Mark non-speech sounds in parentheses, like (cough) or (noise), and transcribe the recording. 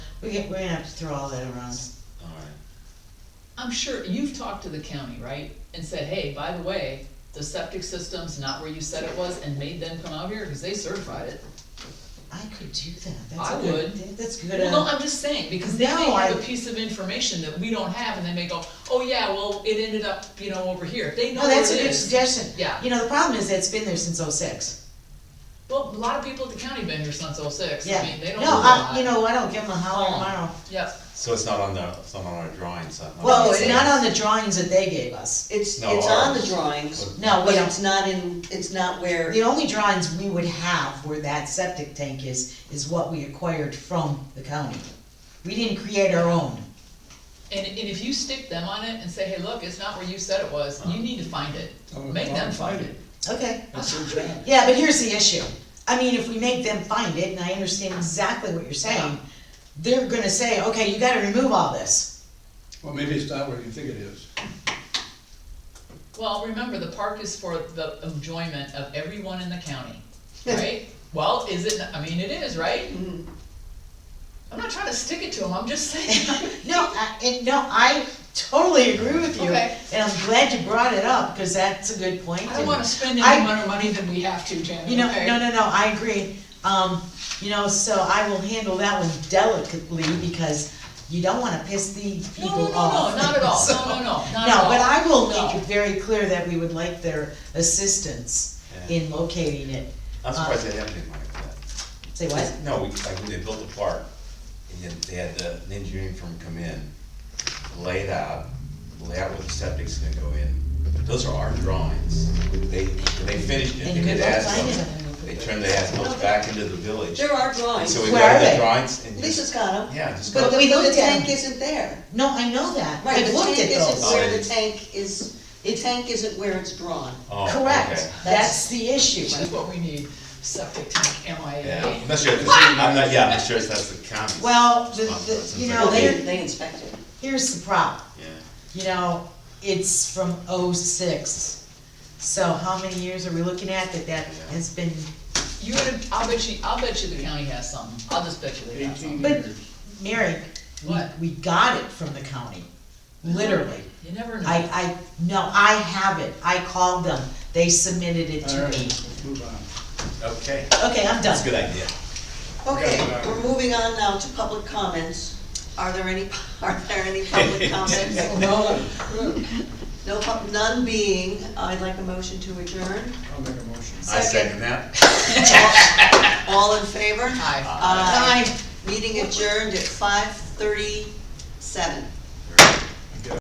We get, we're gonna have to throw all that around. Alright, I'm sure, you've talked to the county, right? And said, hey, by the way, the septic system's not where you said it was, and made them come out here, because they certified it. I could do that, that's I a good, would. that's good, Well, no, uh, I'm just saying, because they may No, have a I- piece of information that we don't have, and they may go, oh, yeah, well, it ended up, you know, over here, they know no, where it oh, that's a good is. suggestion. Yeah. You know, the problem is that it's been there since oh oh-six. Well, a lot of people at the county been here since oh-six, Yeah. I mean, they don't No, know a I, lot. you know, I don't give them a holler Oh. tomorrow. Yep, so it's not on the, it's not on our uh, drawing, so. I'm Well, it's saying- not on the drawings that they gave us. It's, No, it's on the ours. drawings, No, we but don't, it's not in, it's not where, the only drawings we would have where that septic tank is, is what we acquired from the county. We didn't create our own. and, and if you stick them on it and say, hey, look, it's not where you said it was, you need to find it, Oh, make them well, find it. Okay. That's their job. Yeah, but here's the issue. I mean, if we make them find it, and I understand exactly what you're saying, they're gonna say, okay, you gotta remove all this. (laughs) Well, maybe it's not where you think it is. Well, remember, the park is for the enjoyment of everyone in the county, (laughs) right? Well, is it, I mean, it is, right? Mm-hmm. I'm not trying to stick it to them, I'm (laughs) just saying. No, I, and no, I totally agree with you, Okay. and I'm glad you brought it up, cause that's a good point. I don't wanna spend I- any more money than we have to, Janet, You know, okay? no, no, no, I agree. Um, you know, so I will handle that one delicately, because you don't wanna piss the No, people no, off. No, no, not at all, (laughs) So- no, no, no, not at No, all. but I will No. make it very clear that we would like their assistance Yeah. in locating it. I'm surprised they have anything like that. Say what? No, we, like, when they built the park, and then they had the an engineering firm come in, lay it out, lay out where the septic's gonna go in. Those are our drawings. They, when they finished it, And they good did luck asphalt. finding They turned the asphalt back into the village. there are And drawings. so we Where are got the they? drawings and Lisa's just, got them. yeah, just But go, the, we but the looked at 'em. tank isn't there. No, I know that. Right, I've the looked at tank isn't those. Oh, where it the is. tank is, the tank isn't where it's drawn. oh, okay. Correct. That's the issue. Which is what we need, septic tank Yeah, MIA. I'm not sure, if it's- I'm not, yeah, I'm not sure if that's the county. Well, the, the, you know, Oh, They, they, they inspect it. here's the problem. Yeah, You know, it's from oh-six. So how many years are we looking at that that has been, You would, have- I'll bet you, I'll bet you the county has some, I'll just bet you they have some. Eighteen But- years. Mary? we- What? We got it from the county, literally. You never know. I, I, no, I have it. I called them. They submitted it All to right, me. let's move on. okay, Okay, I'm that's done. a good idea. Okay, Yeah. we're moving on now to public comments. Are there any, (laughs) are there any (laughs) public comments? No, No, pub- none being, I'd like a motion to adjourn. I'll make a motion. I second that. All in Uh, favor? Aye. Aye. Meeting adjourned at five thirty-seven.